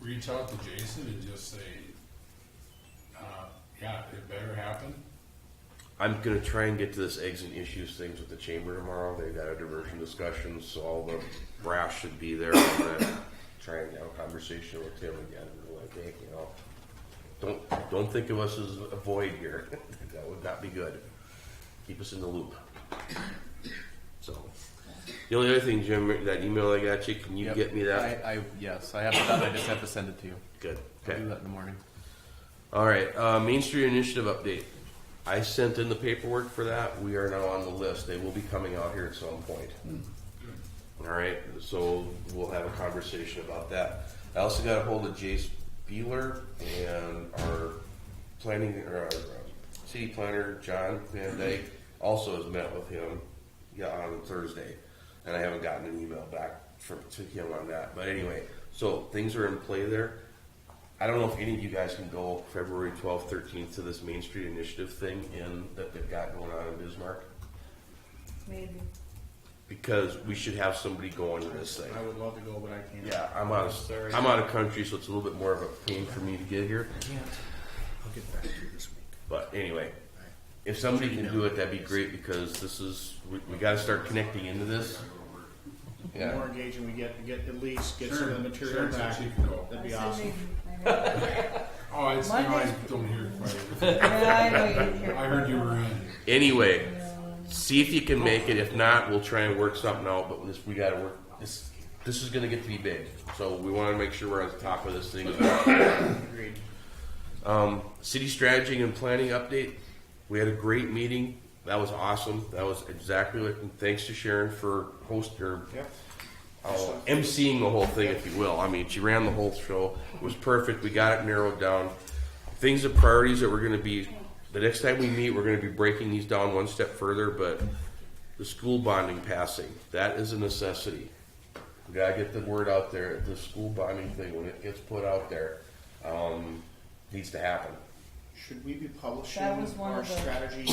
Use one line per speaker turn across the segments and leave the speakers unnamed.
reach out to Jason and just say, uh, yeah, it better happen?
I'm gonna try and get to this eggs and issues things with the chamber tomorrow. They've got a diversion discussion, so all the brass should be there. I'm gonna try and have a conversation with him again. And be like, hey, you know, don't don't think of us as a void here. that would not be good. Keep us in the loop. So, the only other thing, Jim, that email I got you, can you
Yep.
get me that?
I, I, yes, I have it done. I just have to send it to you.
Good.
I'll
Okay.
do that in the morning.
All right, uh, Main Street Initiative update. I sent in the paperwork for that. We are now on the list. They will be coming out here at some point. All right, so we'll have a conversation about that. I also got a hold of Jace Beeler and our planning, or our uh, city planner, John Van Dyke, also has met with him yeah, on Thursday. And I haven't gotten an email back from, to him on that. But anyway, so things are in play there. I don't know if any of you guys can go February twelfth, thirteenth to this Main Street Initiative thing in, that they've got going on in Bismarck.
Maybe.
Because we should have somebody going to this thing.
I would love to go, but I can't.
Yeah, I'm out of,
Sorry.
I'm out of country, so it's a little bit more of a pain for me to get here.
I'll get back to you this week.
But anyway, if somebody can do it, that'd be great because this is, we, we gotta start connecting into this.
The
Yeah,
more engaging we get, we get at least get some
Sure,
of the
sure,
material
it's
back.
like you can go.
That'd
I
be
said
awesome.
maybe. I know.
Oh, it's, now I
Monday's-
don't hear quite.
Yeah, I know you didn't hear.
I heard you were in.
anyway, see if you can make it. If not, we'll try and work something out, but this, we gotta work, this, this is gonna get to be big. So we wanna make sure we're on the top of this thing.
Agreed.
Um, city strategy and planning update. We had a great meeting. That was awesome. That was exactly what, and thanks to Sharon for host or
Yep.
uh, emceeing the whole thing, if you will. I mean, she ran the whole show. It was perfect. We got it narrowed down. Things and priorities that we're going to be, the next time we meet, we're going to be breaking these down one step further, but the school bonding passing, that is a necessity. We got to get the word out there. The school bonding thing, when it gets put out there, um, needs to happen.
Should we be publishing
That was one
our
of the-
strategy?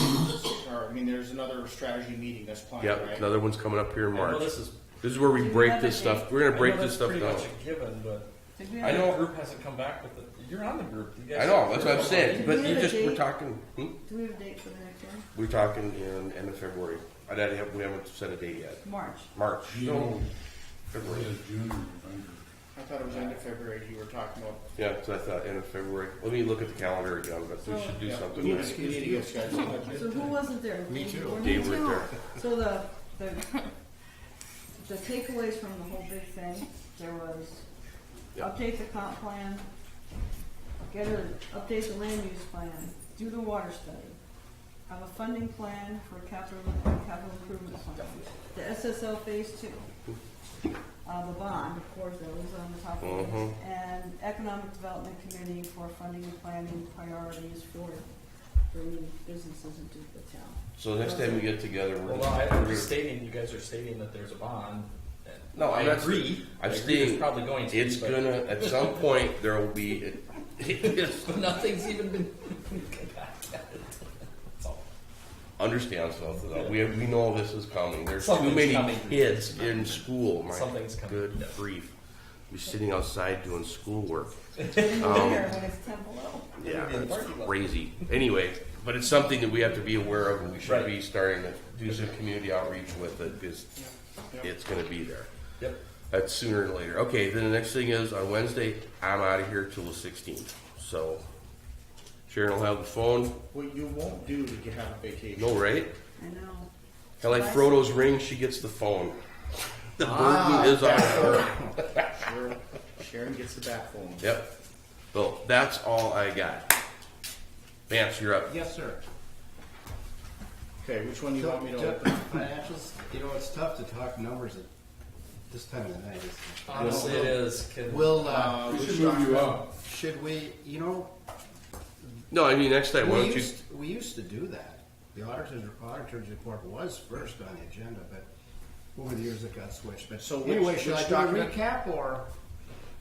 Or I mean, there's another strategy meeting that's planned,
Yep,
right?
another one's coming up here in
I know
March.
this is-
This is where we
Do you
break
have
this
a
stuff,
date?
we're gonna break
I know
this
that's
stuff
pretty
down.
much a given, but
Did we
I
have-
know a group hasn't come back with it. You're on the group. You guys
I know, that's what I'm saying, but
Do we
you
have a
just, we're
date?
talking, hmm?
Do we have a date for the next one?
We're talking in end of February. I don't have, we haven't set a date yet.
March.
March.
No.
February.
June or November.
I thought it was end of February you were talking about.
Yeah, so I thought end of February. Let me look at the calendar again, but we
So-
Oh,
should do
Yeah,
something.
We need
there.
to, we need to get scheduled.
So who wasn't there? Me too.
Dave was there.
So the, the, the takeaways from the whole big thing, there was update the comp plan, get a, update the land use plan, do the water study, have a funding plan for capital, capital improvement plan, the SSL phase two, uh, the bond, of course, that was on the top of the list, and economic development committee for funding and planning priorities for bringing businesses into the town.
So next time we get together, we're
Well,
just.
no,
we're
I'm
gonna-
stating, you guys are stating that there's a bond. and
No,
I
I'm not-
agree.
I'm
I agree
stating
It's probably going to.
It's
be, but-
gonna, at some point, there will be, it's-
But nothing's even been. That's all.
understand something though. We, we know this is coming. There's too
Something's
many
coming.
kids in school, my
Something's coming,
good
yes.
grief. We're sitting outside doing schoolwork.
In the winter when it's ten below.
Yeah,
Maybe in the
that's
parking lot.
crazy. Anyway, but it's something that we have to be aware of, and we should
Right.
be starting to do some community outreach with it, because
Yeah.
it's gonna be there.
Yep.
That's sooner or later. Okay, then the next thing is, on Wednesday, I'm out of here till the sixteenth, so Sharon will have the phone,
What you won't do to get have a vacation.
no, right?
I know.
And like Frodo's ring, she gets the phone. The
Ah.
burden is on her.
Sharon- Sharon gets the back phone.
Yep. So, that's all I got. Vance, you're up.
Yes, sir.
Okay, which one do you want me to
Ju-
open?
Financials, you know, it's tough to talk numbers at this time of the night. isn't it?
Honestly, it is. Can-
Will, uh,
We should move you up.
should we, you know,
No, I mean, next time, why
we
don't you?
used, we used to do that. The auditor's, auditor's report was first on the agenda, but over the years it got switched, but
So
so
which-
anyway, should
which
I do a
document?
recap or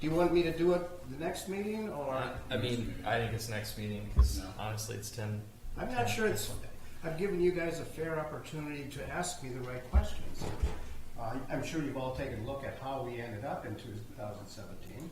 do you want me to do it the next meeting or?
I mean, I think it's next meeting because honestly, it's ten.
I'm not sure it's, I've given you guys a fair opportunity to ask me the right questions. Uh, I'm sure you've all taken a look at how we ended up in 2017.